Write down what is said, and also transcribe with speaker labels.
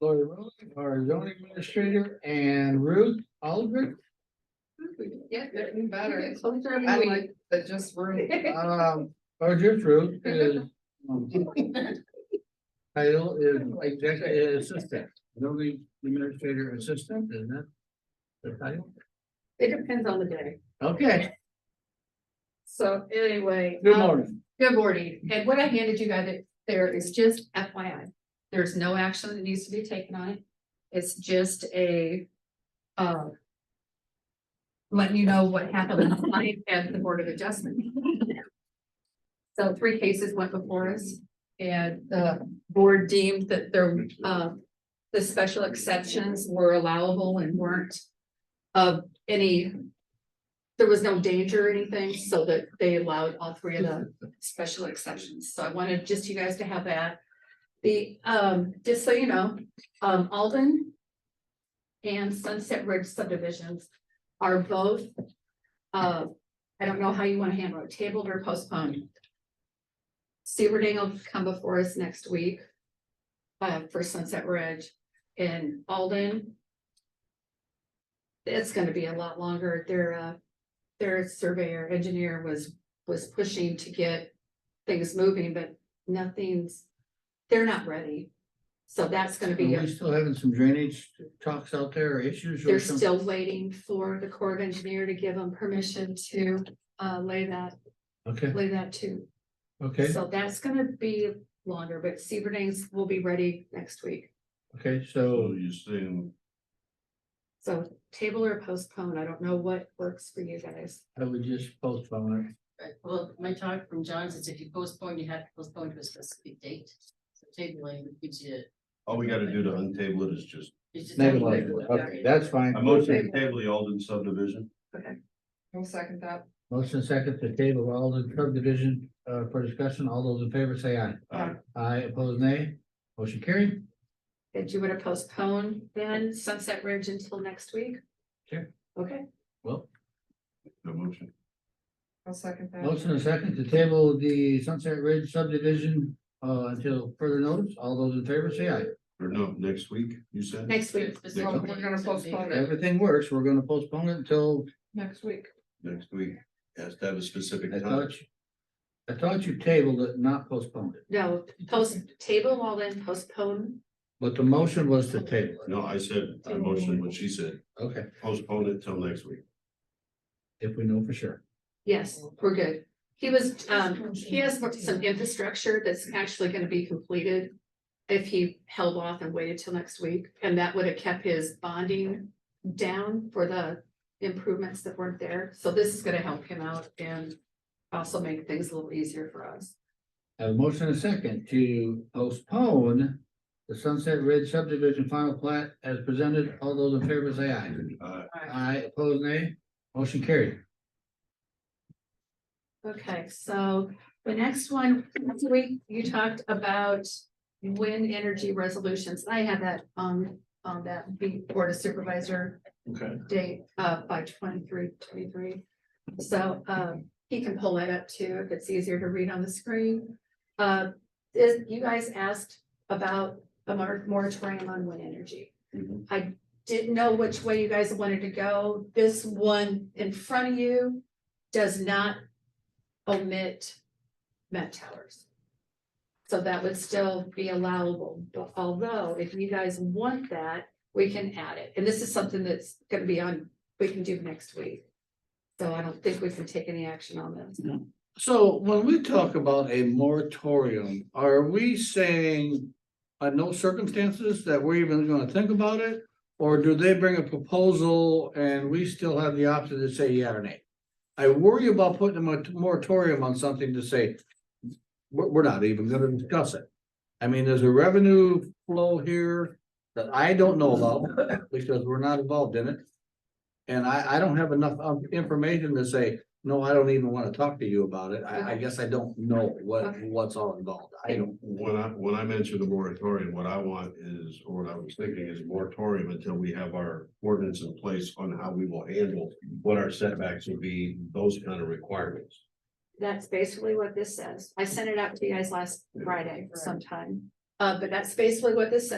Speaker 1: Lori Rowland, our zoning administrator, and Ruth Aldrich.
Speaker 2: Yeah, they're even better.
Speaker 3: Closer,
Speaker 2: I mean, but just room.
Speaker 1: Um, or just Ruth is. um, Title is executive assistant, zoning administrator assistant, isn't that? The title,
Speaker 3: It depends on the day.
Speaker 1: okay,
Speaker 3: So anyway.
Speaker 1: good
Speaker 3: um,
Speaker 1: morning,
Speaker 3: Good morning. And what I handed you guys there is just FYI. There's no action that needs to be taken on it. It's just a, um, letting you know what happened last night at the Board of Adjustment. So three cases went before us and the board deemed that there, uh, the special exceptions were allowable and weren't of any, there was no danger or anything, so that they allowed all three of them special exceptions, so I wanted just you guys to have that. The, um, just so you know, um, Alden and Sunset Ridge subdivisions are both, uh, I don't know how you wanna handle it, tabled or postponed. Sebring will come before us next week, uh, for Sunset Ridge and Alden. It's gonna be a lot longer, their, uh, their surveyor engineer was, was pushing to get things moving, but nothing's, they're not ready. So that's gonna
Speaker 1: are
Speaker 3: be. a-
Speaker 1: we still having some drainage talks out there, or issues or
Speaker 3: they're
Speaker 1: something?
Speaker 3: still waiting for the Corps of Engineer to give them permission to uh lay that,
Speaker 1: Okay,
Speaker 3: lay that too.
Speaker 1: okay,
Speaker 3: So that's gonna be longer, but Seaburnings will be ready next week.
Speaker 1: okay,
Speaker 4: So
Speaker 1: so,
Speaker 4: you saying,
Speaker 3: So table or postpone, I don't know what works for you guys.
Speaker 1: I would just postpone it,
Speaker 5: Right, well, my talk from John is if you postpone, you have to postpone to a specific date. So tabling gives you.
Speaker 4: all we gotta do to untable it is just,
Speaker 5: it's just-
Speaker 1: Maybe like, okay, that's fine.
Speaker 4: I motion to table the Alden subdivision.
Speaker 2: I'll second that.
Speaker 1: Motion second to table all the subdivision uh for discussion. All those in favor say aye.
Speaker 4: Aye.
Speaker 1: Aye, opposed nay. Motion carried.
Speaker 3: Did you wanna postpone then Sunset Ridge until next week?
Speaker 1: Sure.
Speaker 3: Okay,
Speaker 1: Well,
Speaker 4: No motion.
Speaker 2: I'll second that.
Speaker 1: motion and second to table the Sunset Ridge subdivision uh until further notice. All those in favor say aye.
Speaker 4: Or no, next week, you said?
Speaker 3: next week.
Speaker 2: Well, we're gonna postpone it
Speaker 1: Everything works. We're gonna postpone it until
Speaker 2: next week.
Speaker 4: Next week. Has to have a specific
Speaker 1: I
Speaker 4: time.
Speaker 1: thought you. I thought you tabled it, not postponed it,
Speaker 3: No, post, table all then postpone.
Speaker 1: but the motion was to table it.
Speaker 4: No, I said, I motioned what she said,
Speaker 1: Okay,
Speaker 4: postpone it till next week.
Speaker 1: if we know for sure.
Speaker 3: Yes, we're good. He was, um, he has some infrastructure that's actually gonna be completed. If he held off and waited till next week, and that would have kept his bonding down for the improvements that weren't there. So this is gonna help him out and also make things a little easier for us.
Speaker 1: A motion and a second to postpone the Sunset Ridge subdivision final plat as presented. All those in favor say aye.
Speaker 4: Uh,
Speaker 1: Aye, opposed nay. Motion carried.
Speaker 3: Okay, so the next one, last week you talked about wind energy resolutions. I had that on, on that board of supervisor
Speaker 4: okay.
Speaker 3: date uh by twenty-three, twenty-three. So um he can pull that up too, if it's easier to read on the screen. Uh, is, you guys asked about a mor- moratorium on wind energy.
Speaker 4: Mhm.
Speaker 3: I didn't know which way you guys wanted to go. This one in front of you does not omit met towers. So that would still be allowable, but although if you guys want that, we can add it, and this is something that's gonna be on, we can do next week. So I don't think we can take any action on this.
Speaker 6: So when we talk about a moratorium, are we saying on no circumstances that we're even gonna think about it? Or do they bring a proposal and we still have the option to say yeah or nay? I worry about putting a mot- moratorium on something to say, we're, we're not even gonna discuss it. I mean, there's a revenue flow here that I don't know about because we're not involved in it. And I, I don't have enough um, information to say, no, I don't even wanna talk to you about it. I, I guess I don't know what,
Speaker 3: Okay.
Speaker 6: what's all involved. I don't.
Speaker 4: When I, when I mentioned the moratorium, what I want is, or what I was thinking is moratorium until we have our ordinance in place on how we will handle what our setbacks would be, those kind of requirements.
Speaker 3: That's basically what this says. I sent it out to you guys last Friday sometime, uh, but that's basically what this says.